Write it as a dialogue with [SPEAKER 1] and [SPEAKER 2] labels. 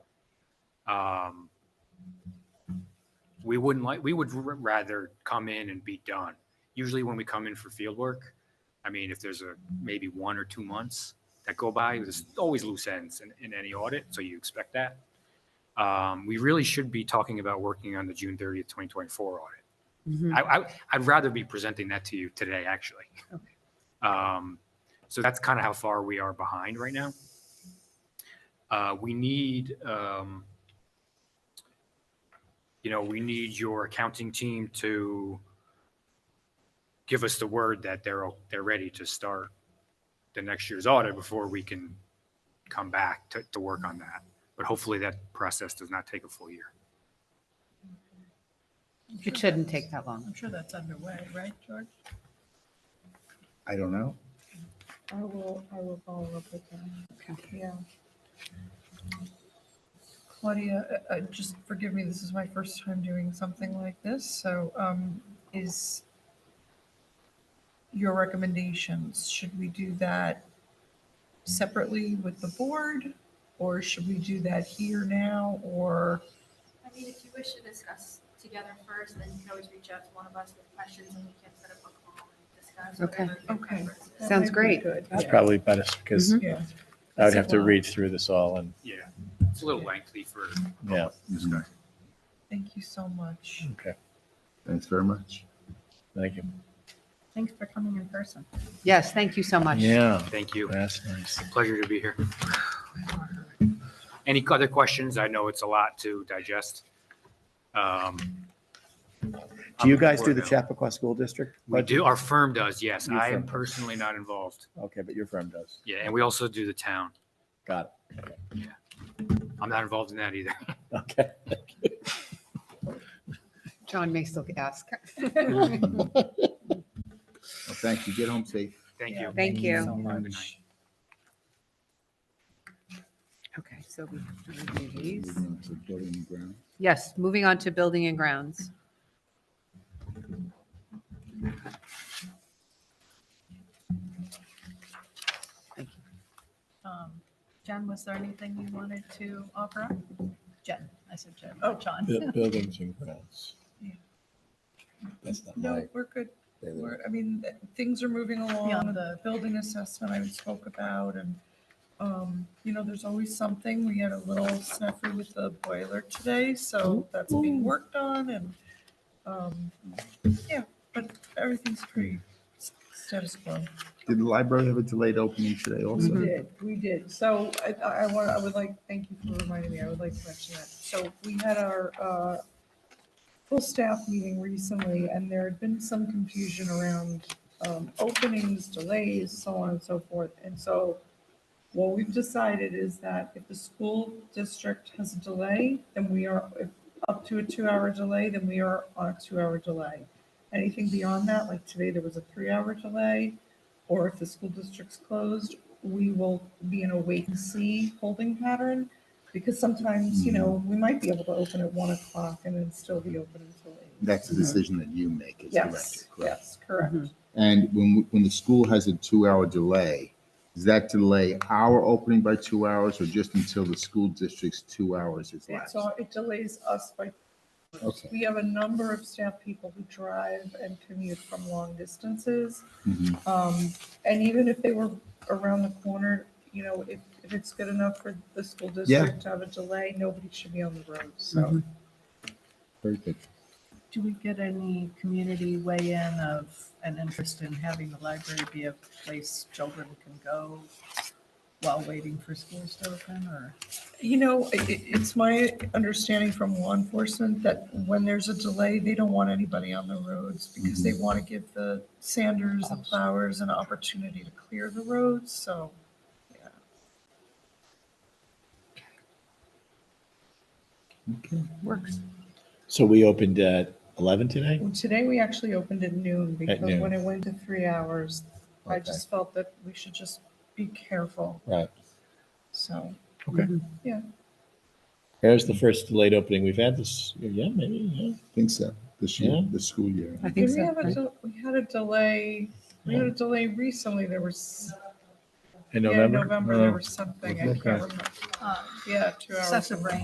[SPEAKER 1] um, we wouldn't like, we would r- rather come in and be done. Usually when we come in for field work, I mean, if there's a, maybe one or two months that go by, there's always loose ends in, in any audit, so you expect that. Um, we really should be talking about working on the June thirtieth, twenty twenty-four audit.
[SPEAKER 2] Mhm.
[SPEAKER 1] I, I, I'd rather be presenting that to you today, actually. Um, so that's kind of how far we are behind right now. Uh, we need, um, you know, we need your accounting team to give us the word that they're, they're ready to start the next year's audit before we can come back to, to work on that. But hopefully that process does not take a full year.
[SPEAKER 2] It shouldn't take that long.
[SPEAKER 3] I'm sure that's underway, right, George?
[SPEAKER 4] I don't know.
[SPEAKER 5] I will, I will follow up with them, yeah.
[SPEAKER 3] Claudia, uh, uh, just forgive me, this is my first time doing something like this, so um, is your recommendations, should we do that separately with the board? Or should we do that here now, or,
[SPEAKER 6] I mean, if you wish to discuss together first, then you can always reach out to one of us with questions and we can set up a call and discuss
[SPEAKER 2] Okay.
[SPEAKER 6] whatever. your
[SPEAKER 3] Okay.
[SPEAKER 6] preference is.
[SPEAKER 3] That
[SPEAKER 2] Sounds
[SPEAKER 3] might be
[SPEAKER 2] great.
[SPEAKER 3] good.
[SPEAKER 7] It's probably better because
[SPEAKER 3] yeah,
[SPEAKER 7] I would have to read through this all and,
[SPEAKER 1] Yeah, it's a little lengthy for.
[SPEAKER 7] yeah,
[SPEAKER 1] This
[SPEAKER 4] Mm-hmm.
[SPEAKER 1] guy.
[SPEAKER 3] thank you so much.
[SPEAKER 7] okay,
[SPEAKER 4] Thanks very much.
[SPEAKER 7] thank you.
[SPEAKER 5] Thanks for coming in person.
[SPEAKER 2] Yes, thank you so much.
[SPEAKER 7] Yeah,
[SPEAKER 1] Thank you.
[SPEAKER 7] that's nice.
[SPEAKER 1] Pleasure to be here. Any other questions? I know it's a lot to digest. Um,
[SPEAKER 4] Do you guys do the
[SPEAKER 1] I'm-
[SPEAKER 4] Chappaqua School District?
[SPEAKER 1] We do, our firm does, yes.
[SPEAKER 4] Your
[SPEAKER 1] I am
[SPEAKER 4] firm.
[SPEAKER 1] personally not involved.
[SPEAKER 4] Okay, but your firm does.
[SPEAKER 1] Yeah, and we also do the town.
[SPEAKER 4] Got
[SPEAKER 1] I'm not involved in that either.
[SPEAKER 4] it. Okay.
[SPEAKER 2] John may still ask.
[SPEAKER 4] Well, thank you. Get home safe.
[SPEAKER 1] Thank you.
[SPEAKER 2] Thank you.
[SPEAKER 4] so
[SPEAKER 1] Have a
[SPEAKER 4] much.
[SPEAKER 1] good night.
[SPEAKER 2] Okay, so we have to review
[SPEAKER 4] You're
[SPEAKER 2] these.
[SPEAKER 4] going to building and ground.
[SPEAKER 2] Yes, moving on to building and grounds.
[SPEAKER 5] Um, Jen, was there anything you wanted to offer up? Jen, I said Jen,
[SPEAKER 3] Oh.
[SPEAKER 5] John.
[SPEAKER 7] Bu- Buildings and grounds.
[SPEAKER 3] Yeah.
[SPEAKER 4] That's not
[SPEAKER 3] No,
[SPEAKER 4] my.
[SPEAKER 3] we're good.
[SPEAKER 4] they live-
[SPEAKER 3] We're, I mean, th- things are moving along,
[SPEAKER 5] Yeah.
[SPEAKER 3] the building assessment I spoke about and, um, you know, there's always something. We had a little snafu with the boiler today, so that's being worked on and, um, yeah, but everything's pretty s- status quo.
[SPEAKER 4] Did the library have a delayed opening today also?
[SPEAKER 3] We did, we did. So I, I want, I would like, thank you for reminding me, I would like to mention that. So we had our, uh, full staff meeting recently and there had been some confusion around, um, openings, delays, so on and so forth. And so what we've decided is that if the school district has a delay, then we are, if up to a two-hour delay, then we are on a two-hour delay. Anything beyond that, like today, there was a three-hour delay, or if the school district's closed, we will be in a wait and see holding pattern. Because sometimes, you know, we might be able to open at one o'clock and then still be open until eight.
[SPEAKER 4] That's a decision that you make as
[SPEAKER 3] Yes,
[SPEAKER 4] director, correct?
[SPEAKER 3] yes, correct.
[SPEAKER 4] And when, when the school has a two-hour delay, does that delay our opening by two hours or just until the school district's two hours is
[SPEAKER 3] It's
[SPEAKER 4] lapsed?
[SPEAKER 3] all, it delays us by
[SPEAKER 4] Okay.
[SPEAKER 3] We have a number of staff people who drive and commute from long distances.
[SPEAKER 4] Mhm.
[SPEAKER 3] Um, and even if they were around the corner, you know, if, if it's good enough for the school district to have a delay, nobody should be on the road, so.
[SPEAKER 4] Very good.
[SPEAKER 5] Do we get any community weigh-in of an interest in having the library be a place children can go while waiting for schools to open or?
[SPEAKER 3] You know, it, it- it's my understanding from law enforcement that when there's a delay, they don't want anybody on the roads because they want to give the sanders and plowers an opportunity to clear the roads, so.
[SPEAKER 4] Okay.
[SPEAKER 2] Works.
[SPEAKER 7] So we opened at 11 today?
[SPEAKER 3] Well, Today, we actually opened at noon because
[SPEAKER 7] noon.
[SPEAKER 3] when it went to three hours, I
[SPEAKER 4] Okay.
[SPEAKER 3] just felt that we should just be careful,
[SPEAKER 7] Right.
[SPEAKER 3] so.
[SPEAKER 7] Here's the first delayed opening we've had this, year. yeah, maybe, yeah.
[SPEAKER 4] Think so, this
[SPEAKER 7] Yeah.
[SPEAKER 4] year, this school year.
[SPEAKER 2] I think
[SPEAKER 3] Did we
[SPEAKER 2] so.
[SPEAKER 3] have a,
[SPEAKER 2] right?
[SPEAKER 3] del- we had a delay, we had a delay recently, there was,
[SPEAKER 7] In
[SPEAKER 3] yeah,
[SPEAKER 7] November?
[SPEAKER 3] November,
[SPEAKER 7] Oh.
[SPEAKER 3] there was something, I
[SPEAKER 4] Okay.
[SPEAKER 6] Um,
[SPEAKER 3] can't remember. Yeah, two hours.
[SPEAKER 5] Excessive
[SPEAKER 3] delay.